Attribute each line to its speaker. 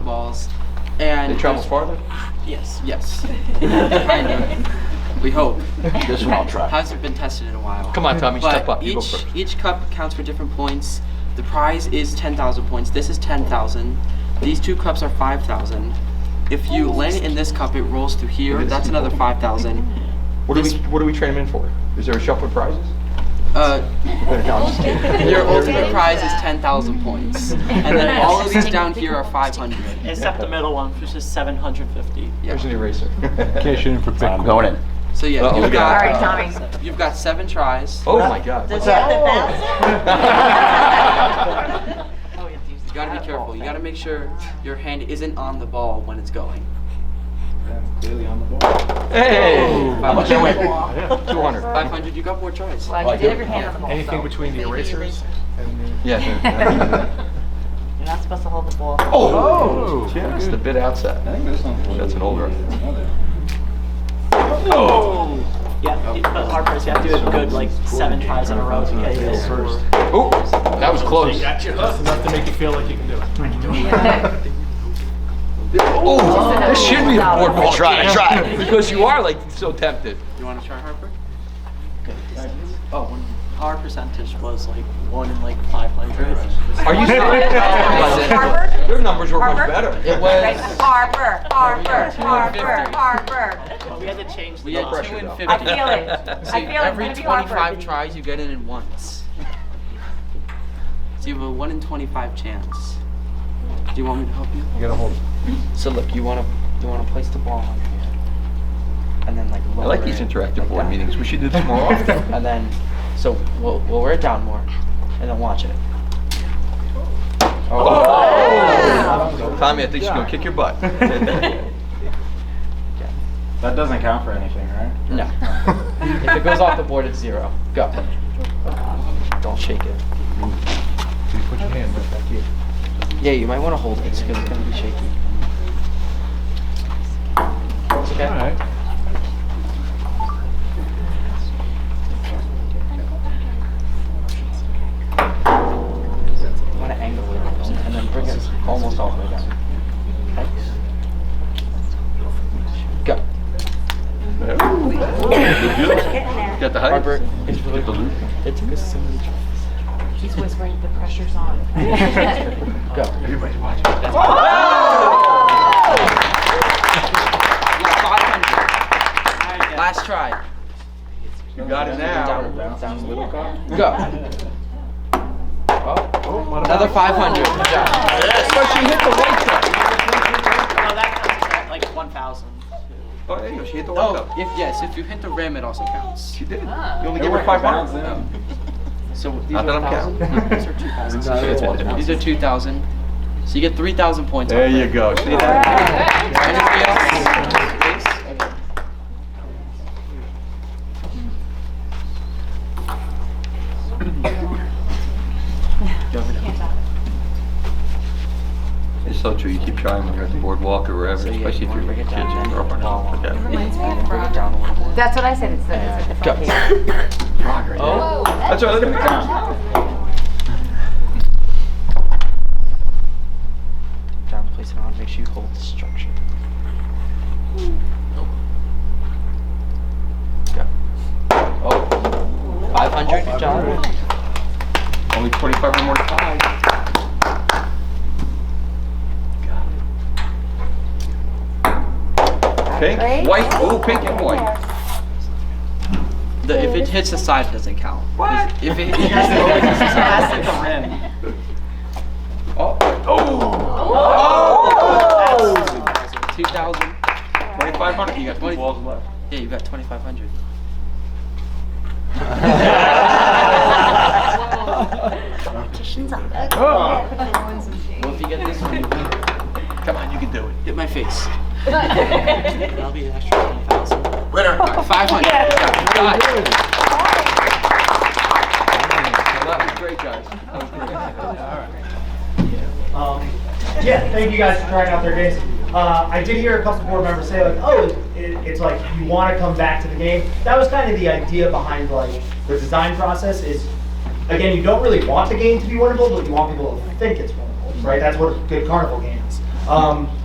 Speaker 1: And
Speaker 2: They travel farther?
Speaker 1: Yes, yes. kind of. We hope.
Speaker 2: This one I'll try.
Speaker 1: Hasn't been tested in a while.
Speaker 2: Come on, Tommy,
Speaker 1: But
Speaker 2: step up. You go
Speaker 1: each-
Speaker 2: first.
Speaker 1: Each cup counts for different points. The prize is 10,000 points. This is 10,000. These two cups are 5,000. If you land it in this cup, it rolls through here. That's another 5,000.
Speaker 2: What do we,
Speaker 1: this-
Speaker 2: what do we train them in for? Is there a shuffle of prizes?
Speaker 1: Uh,
Speaker 2: No, I'm just kidding.
Speaker 1: Your
Speaker 2: There
Speaker 1: ultimate
Speaker 2: is.
Speaker 1: prize is 10,000 points. And then all of these down here are 500.
Speaker 3: Except the middle one, which is 750.
Speaker 1: Yeah.
Speaker 2: There's an eraser.
Speaker 4: Cash in for Bitcoin.
Speaker 5: I'm going in.
Speaker 1: So yeah,
Speaker 2: Uh-oh, we
Speaker 1: you've
Speaker 2: got-
Speaker 1: got,
Speaker 2: All right,
Speaker 6: Tommy.
Speaker 1: you've got seven tries.
Speaker 2: Oh my God. What's
Speaker 3: Does that
Speaker 2: that?
Speaker 3: have Oh, you have to use
Speaker 1: You gotta be careful. You gotta make sure your hand isn't on the ball when it's going.
Speaker 2: Hey!
Speaker 1: How much
Speaker 2: I
Speaker 1: I
Speaker 2: win?
Speaker 1: win?
Speaker 2: 200.
Speaker 1: 500 you got more tries.
Speaker 6: Well, you did have your hand on the ball.
Speaker 4: Anything
Speaker 6: so
Speaker 4: between the
Speaker 6: maybe
Speaker 4: erasers
Speaker 6: eraser.
Speaker 4: and the.
Speaker 2: Yeah.
Speaker 3: You're not supposed to hold the ball.
Speaker 2: Oh! That's the bit outside.
Speaker 5: think this one's.
Speaker 2: That's an older. Oh.
Speaker 3: Yeah, you- but Harper's, you have to do it good, like seven tries in a row to get this.
Speaker 2: Oh, that was close.
Speaker 4: That's enough to make you feel like you can do it.
Speaker 2: Oh, that should be a board ball.
Speaker 5: Try,
Speaker 2: game.
Speaker 5: try.
Speaker 2: Because you are like so tempted.
Speaker 1: You wanna try Harper?
Speaker 3: Oh, Our percentage was like one in like 500.
Speaker 2: Are you
Speaker 6: Harvard?
Speaker 2: serious? Your numbers were much
Speaker 6: Harvard?
Speaker 2: better. It
Speaker 6: Right, Harper, Harper, Harper, Harper.
Speaker 3: Well, we had to change
Speaker 1: We
Speaker 3: the
Speaker 1: had
Speaker 3: law.
Speaker 1: two
Speaker 2: pressure,
Speaker 1: and
Speaker 2: though.
Speaker 1: 50.
Speaker 6: I feel it. I feel it's
Speaker 1: every
Speaker 6: gonna be Harper.
Speaker 1: 25 tries you get it in once. So you have a 1 in 25 chance. Do you want me to help you?
Speaker 2: gotta hold.
Speaker 1: So look, you wanna you wanna place the ball on your hand, and then like
Speaker 2: I
Speaker 1: lower
Speaker 2: like these
Speaker 1: it
Speaker 2: interactive
Speaker 1: like
Speaker 2: board
Speaker 1: that.
Speaker 2: meetings. We should do this more often.
Speaker 1: And then, so we'll we'll wear it down more, and then watch it.
Speaker 2: Oh! Tommy, I think she's gonna kick your butt.
Speaker 5: That doesn't count for anything, right?
Speaker 1: No. if it goes off the board, it's zero. Go. Don't shake it.
Speaker 4: Put your hand right back here.
Speaker 1: Yeah, you might want to hold it because it's gonna be shaky. It's okay.
Speaker 4: All right.
Speaker 1: You want to angle it a little, and then bring it almost all the way down. Okay. Go.
Speaker 2: Got the height?
Speaker 1: Harper is really
Speaker 2: Get the loop.
Speaker 1: It took us so many
Speaker 6: He's whispering, the pressure's on.
Speaker 1: tries. Go.
Speaker 4: Everybody's watching.
Speaker 1: Oh! Last try.
Speaker 2: You got it
Speaker 1: Down,
Speaker 2: now.
Speaker 1: down, down.
Speaker 5: Little car?
Speaker 1: Go.
Speaker 2: Oh,
Speaker 1: Another 500. Good job.
Speaker 2: Yes, but she hit the white side.
Speaker 3: No, that counts as like 1,000.
Speaker 2: Oh, there you go. She hit the white
Speaker 1: Oh,
Speaker 2: side.
Speaker 1: if yes, if you hit the rim, it also counts.
Speaker 2: She did. You only gave her five marks.
Speaker 1: So these
Speaker 2: Not that
Speaker 1: are
Speaker 2: I'm counting.
Speaker 1: 1,000. These are 2,000. These are 2,000. So you get 3,000 points.
Speaker 2: There
Speaker 1: off
Speaker 2: you
Speaker 1: it.
Speaker 2: go. See that?
Speaker 1: Anybody else? Please.
Speaker 2: It's so true. You keep trying when you're at the boardwalk or wherever,
Speaker 1: So, yeah,
Speaker 2: especially
Speaker 1: you
Speaker 2: if
Speaker 1: wanna
Speaker 2: you're
Speaker 1: break it
Speaker 2: kids
Speaker 1: down and
Speaker 2: and
Speaker 1: then
Speaker 2: girlfriend or something like that.
Speaker 1: Reminds me of Bring it down a little more.
Speaker 6: That's what I said, it's the, it's at the front
Speaker 1: Go.
Speaker 6: page.
Speaker 2: Progress.
Speaker 1: Oh.
Speaker 2: That's right. Look at the count.
Speaker 1: Down, place it on. Make sure you hold the structure. Go.
Speaker 2: Oh,
Speaker 1: 500. Good job.
Speaker 2: only 25 or more to five. Okay,
Speaker 6: Great.
Speaker 2: white, oh, pink and white.
Speaker 1: The, if it hits the side, it doesn't count. 'Cause If it,
Speaker 3: That's the rim.
Speaker 2: Oh, oh,
Speaker 3: Oh!
Speaker 1: 2,000.
Speaker 2: 2,500, you got two
Speaker 1: Twenty-
Speaker 2: balls left.
Speaker 1: Yeah, you got 2,500. Well, if you get this one, you win.
Speaker 2: Come on, you can do it.
Speaker 1: hit my face. That'll be an extra 10,000. Winner. 500. God.
Speaker 2: Well, that was great, guys. That was great.
Speaker 7: Um, yeah, thank you guys for trying out their games. Uh, I did hear a couple board members say like, oh, it, it's like you want to come back to the game. That was kind of the idea behind like the design process is, again, you don't really want the game to be winnable, but you want people to think it's winnable, right? That's what a good carnival game is. Um,